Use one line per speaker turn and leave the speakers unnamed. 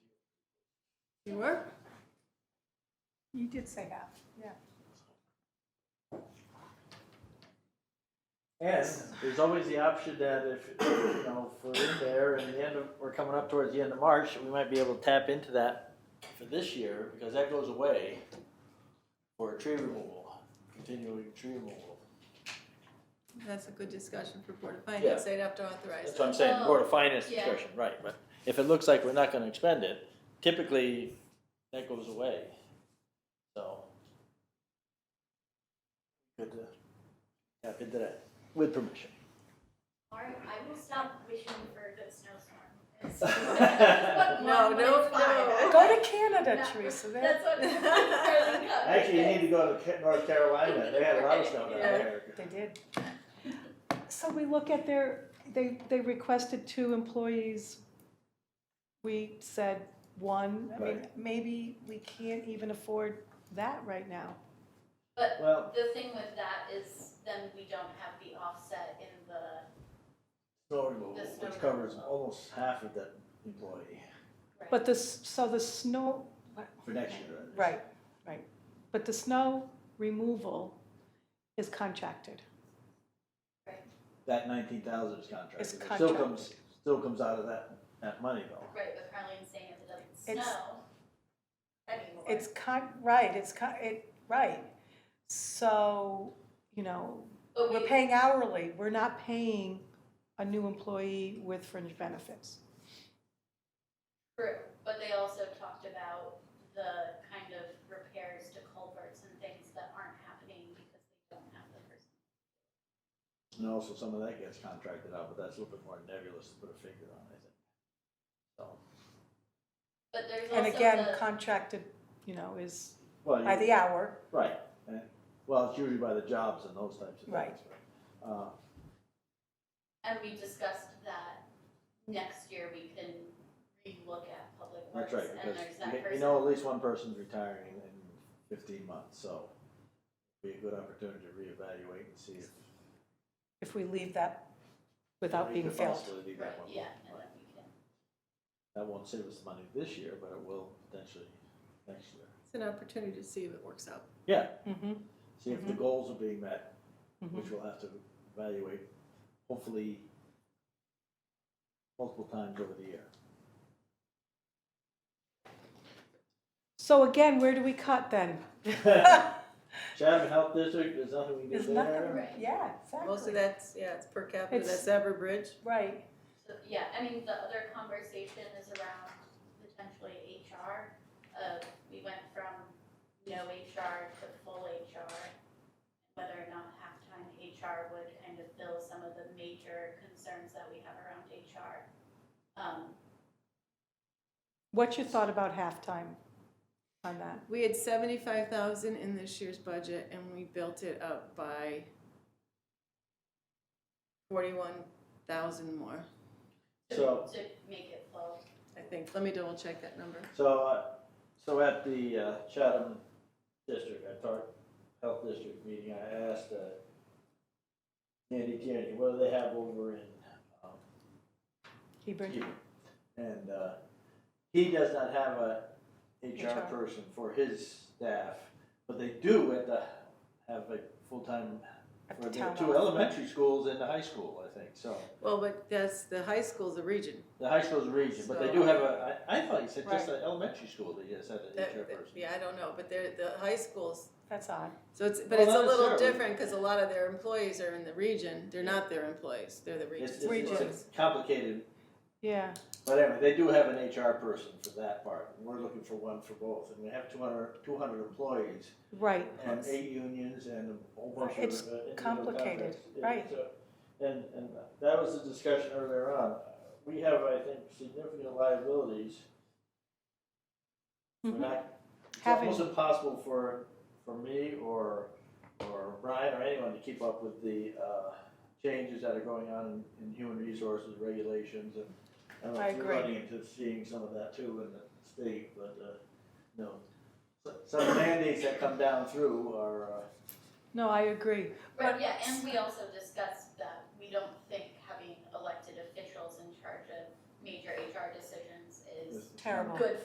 You were?
You did say half, yeah.
And there's always the option that if, you know, if we're in there and the end of, we're coming up towards the end of March, we might be able to tap into that for this year, because that goes away for tree removal, continuing tree removal.
That's a good discussion for Board of Finance, they'd have to authorize
That's
it.
what I'm saying, Board of Finance
yeah.
discussion, right, but if it looks like we're not gonna expend it, typically, that goes away, so. Good to tap into that, with permission.
All right, I will stop wishing for a good snowstorm.
No,
No,
no, no.
Go to Canada,
That's
Teresa, there,
what I'm really good.
Actually, you need to go to Ca- North Carolina, they had a lot of snow down there.
they did. So we look at their, they, they requested two employees. We said one, I mean, maybe we can't even afford that right now.
Well,
The thing with that is then we don't have the offset in the,
snow removal,
The snow
which covers
removal.
almost half of that employee
But the, s- so the snow,
for next year. that is.
right, right, but the snow removal is contracted.
That nineteen thousand is contracted,
It's
it still
contracted.
comes, still comes out of that, that money though.
right, with Harleen saying if it doesn't
It's-
snow anymore.
It's con, right, it's con, it, right. So, you know,
But we,
We're paying hourly, we're not paying a new employee with fringe benefits.
true, but they also talked about the kind of repairs to culverts and things that aren't happening because they don't have the person.
And also some of that gets contracted out, but that's a little bit more nebulous to put a figure on, I think. So,
But there's also
And
the.
again, contracted, you know, is
well,
by
you-
the hour,
right, and- well, it's usually by the jobs and those types of things.
Right.
but, Uh,
And we discussed that next year we can relook at public
that's
works
right,
and there's
because
that
you- you
person.
know, at least one person's retiring in fifteen months, so be a good opportunity to reevaluate and see if
if we leave that without
We
being
could
filled.
possibly leave
Right,
that one.
yeah, and
Right.
then we can,
That won't save us money this year, but it will potentially next year.
It's an opportunity to see if it works out.
Yeah,
Mm-hmm,
see if the
Mhm.
goals are being met,
mm-hmm,
which we'll have to evaluate, hopefully multiple times over the year.
so again, where do we cut then?
Chatham Health District, there's nothing we can
There's
do
nothing,
there.
Right.
yeah,
Most of
exactly,
that's, yeah, it's per capita,
It's-
that's Everbridge.
right,
so, yeah, I mean, the other conversation is around potentially HR. Uh, we went from no HR to full HR. Whether or not halftime HR would kind of fill some of the major concerns that we have around HR. Um,
what's your thought about halftime on that?
We had seventy-five thousand in this year's budget and we built it up by forty-one thousand more,
So-
to, to make it flow.
I think. Let me double check that number.
So, uh, so at the uh, Chatham District, I thought, Health District meeting, I asked uh, Andy Tierney, what do they have over in um,
Hebron,
And uh, he does not have a HR
HR.
person for his staff, but they do at the, have a full-time,
at
for
the
the
town
two
hall.
elementary schools and the high school, I think, so.
Well, but that's, the high school's a region.
The high school's a region, but they
So-
do have a, I, I thought you said just the elementary school that just had an
That-
HR
that-
person.
Yeah, I don't know, but they're, the high schools,
That's odd,
so it's, but
Well,
it's a
not
little
necessarily.
different, cause a lot of their employees are in the region, they're not their employees, they're the
It's,
region's
it's- it's
employees.
a complicated,
yeah,
but anyway, they do have an HR person for that part, and we're looking for one for both, and we have 200 200 employees.
right,
and eight unions and a whole bunch of. uh,
It's
individual
complicated,
contracts. Yeah,
right.
so- And, and that was the discussion earlier on. We have, I think, significant liabilities. We're
Mhm.
not, it's
Having-
almost impossible for, for me or, or Brian or anyone to keep up with the, uh, changes that are going on in, in human resources regulations and. don't know
I
if you're
agree.
Running into seeing some of that too in the state, but, uh, no. So- Some mandates that come down through are, uh,
no, I agree.
Right,
But-
yeah, and we also discussed that we don't think having elected officials in charge of major HR decisions is
is-
Terrible.
good